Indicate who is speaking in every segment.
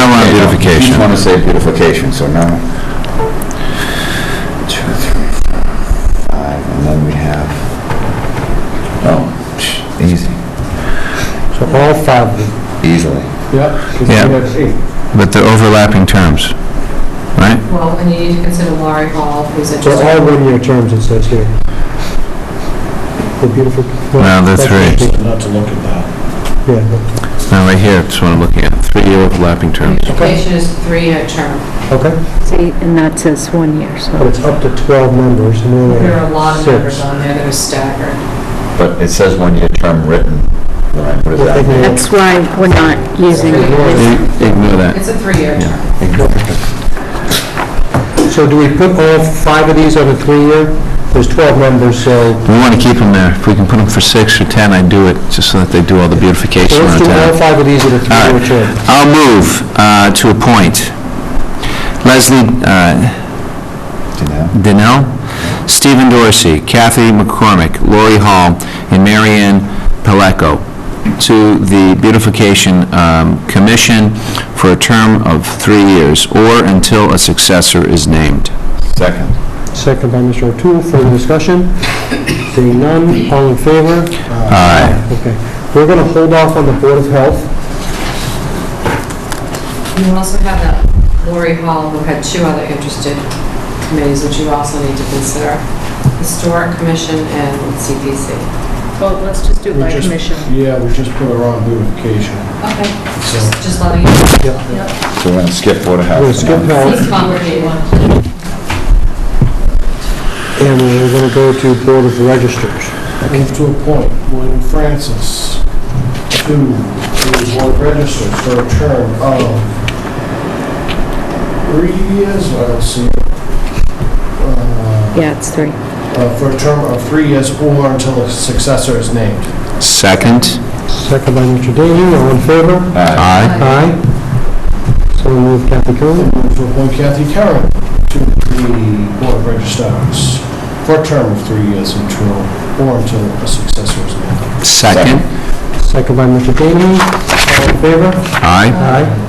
Speaker 1: Beautification.
Speaker 2: Each one is a beautification, so now, two, three, four, five, and then we have, oh, psh, easy,
Speaker 3: So all five of them.
Speaker 2: easily.
Speaker 3: Yeah. 'cause we
Speaker 1: Yeah.
Speaker 3: have eight.
Speaker 1: But the overlapping terms, right?
Speaker 4: Well, and you need to consider Laurie Hall, who's
Speaker 3: So
Speaker 4: interested.
Speaker 3: all one-year terms it says here. The beautiful.
Speaker 1: No, they're three.
Speaker 5: Not to look at that.
Speaker 3: Yeah, no.
Speaker 1: Now, right here, that's what I'm looking at, three-year overlapping terms.
Speaker 4: Education is three-year term.
Speaker 3: okay,
Speaker 6: See, and that says one year,
Speaker 3: but
Speaker 6: so.
Speaker 3: it's up to 12 members, and we only
Speaker 4: There are
Speaker 3: have
Speaker 4: a lot of
Speaker 3: six.
Speaker 4: numbers on there that are staggered.
Speaker 2: But it says one-year term written, Lorraine, what does
Speaker 3: We're
Speaker 2: that
Speaker 3: thinking
Speaker 2: mean?
Speaker 6: That's why we're not using it.
Speaker 1: I-
Speaker 6: It's-
Speaker 1: Ignore that.
Speaker 4: It's a three-year
Speaker 1: Yeah.
Speaker 4: term.
Speaker 3: So do we put all five of these on a three-year? There's 12 members, so
Speaker 1: We want to keep them there. If we can put them for six or 10, I'd do it, just so that they do all the
Speaker 3: so
Speaker 1: beautification
Speaker 3: let's
Speaker 1: around
Speaker 3: do all
Speaker 1: town.
Speaker 3: five of these at a three-year term.
Speaker 1: I'll move uh, to appoint Leslie uh,
Speaker 2: Do you know?
Speaker 1: Donnell, Stephen Dorsey, Kathy McCormick, Lori Hall, and Marianne Pelleco to the Beautification um, Commission for a term of three years, or until a successor is named.
Speaker 2: Second.
Speaker 3: Second by Mr. O'Toole, further discussion? Seeing none, all in favor?
Speaker 1: Aye.
Speaker 3: Okay, we're going to hold off on the Board of Health.
Speaker 4: You also have that Laurie Hall, who had two other interested committees, which you also need to consider. Historic Commission and CPC.
Speaker 7: Well, let's just do
Speaker 5: We
Speaker 7: by
Speaker 5: just-
Speaker 7: commission.
Speaker 5: Yeah, we just put her on beautification.
Speaker 4: Okay,
Speaker 5: So
Speaker 4: just just letting you, know.
Speaker 2: So we're gonna skip Board of Health.
Speaker 3: We'll skip
Speaker 2: and then-
Speaker 3: health.
Speaker 4: it's complicated.
Speaker 3: And we're going to go to Board of Registers.
Speaker 5: move to appoint William Francis to the board registered for a term of three years, I don't see. it. Uh,
Speaker 6: Yeah, it's three.
Speaker 5: uh, For a term of three years or until a successor is named.
Speaker 1: Second?
Speaker 3: Second by Mr. Daly, all in favor?
Speaker 2: Aye.
Speaker 1: Aye.
Speaker 3: Aye. So move Kathy Curran.
Speaker 5: Move to appoint Kathy Karen to the board of registrars for a term of three years until, or until a successor is named.
Speaker 1: Second?
Speaker 3: Second by Mr. Daly, all in favor?
Speaker 1: Aye.
Speaker 3: Aye.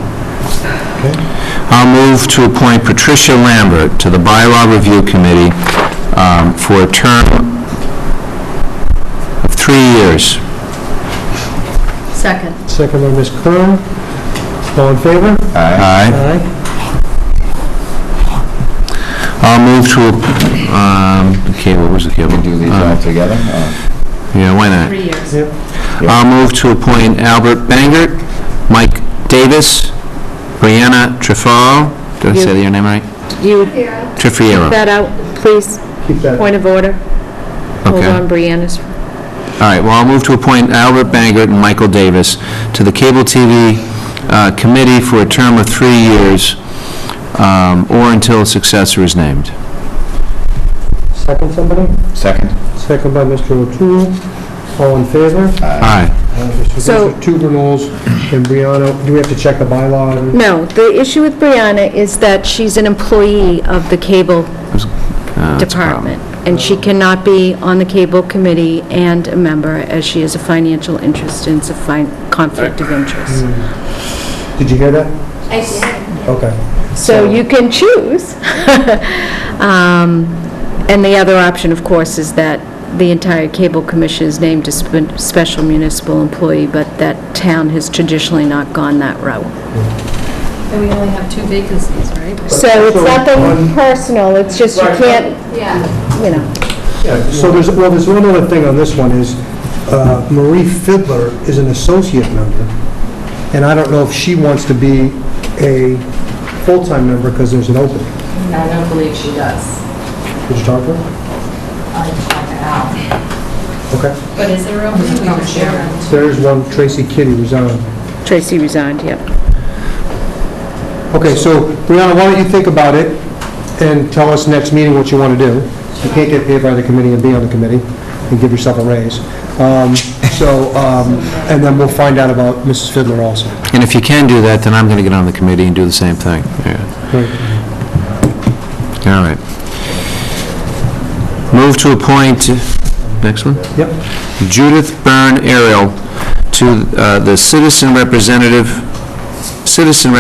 Speaker 1: I'll move to appoint Patricia Lambert to the Bylaw Review Committee um, for a term of three years.
Speaker 7: Second.
Speaker 3: Second by Ms. Curran, all in favor?
Speaker 1: Aye.
Speaker 3: Aye.
Speaker 1: I'll move to, a- um, okay, what was it?
Speaker 2: We can do these
Speaker 1: Uh-huh.
Speaker 2: all together? Uh,
Speaker 1: Yeah, why not?
Speaker 7: Three years.
Speaker 1: I'll move to appoint Albert Bangert, Mike Davis, Brianna Trefaro, did I say your name right?
Speaker 6: You would
Speaker 1: Trefiero,
Speaker 6: keep that out, please,
Speaker 3: Keep that.
Speaker 6: point of order. Hold
Speaker 1: okay.
Speaker 6: on, Brianna's
Speaker 1: All right, well, I'll move to appoint Albert Bangert and Michael Davis to the Cable TV uh, Committee for a term of three years, um, or until a successor is named.
Speaker 3: Second somebody?
Speaker 2: Second?
Speaker 3: Second by Mr. O'Toole, all in favor?
Speaker 1: Aye.
Speaker 6: So-
Speaker 3: Two renewals, and Brianna, do we have to check the bylaw?
Speaker 6: No, the issue with Brianna is that she's an employee of the cable
Speaker 1: Uh, that's a problem.
Speaker 6: department, and she cannot be on the cable committee and a member, as she is a financial interest and it's a fin- conflict of interest.
Speaker 3: Did you hear that? Okay.
Speaker 6: So you can choose. Um, And the other option, of course, is that the entire cable commission is named a spe- special municipal employee, but that town has traditionally not gone that route.
Speaker 7: And we only have two vacancies, right?
Speaker 6: So it's nothing personal, it's just you can't, you know.
Speaker 3: Yeah, So there's, well, there's one other thing on this one is uh, Marie Fiddler is an associate member, and I don't know if she wants to be a full-time member because there's an opening.
Speaker 4: I don't believe she does.
Speaker 3: Did you talk to her?
Speaker 4: I'll check it out.
Speaker 3: Okay.
Speaker 7: But is there room
Speaker 4: We don't share it.
Speaker 3: There is one, Tracy Kitty resigned.
Speaker 6: Tracy resigned, yep.
Speaker 3: Okay, so Brianna, why don't you think about it and tell us next meeting what you want to do? You can't get paid by the committee and be on the committee and give yourself a raise. Um, So, um, and then we'll find out about Mrs. Fiddler also.
Speaker 1: And if you can do that, then I'm going to get on the committee and do the same thing. Yeah.
Speaker 3: Right.
Speaker 1: All right. Move to appoint, next one?
Speaker 3: Yep.
Speaker 1: Judith Byrne Ariel to uh, the Citizen Representative, Citizen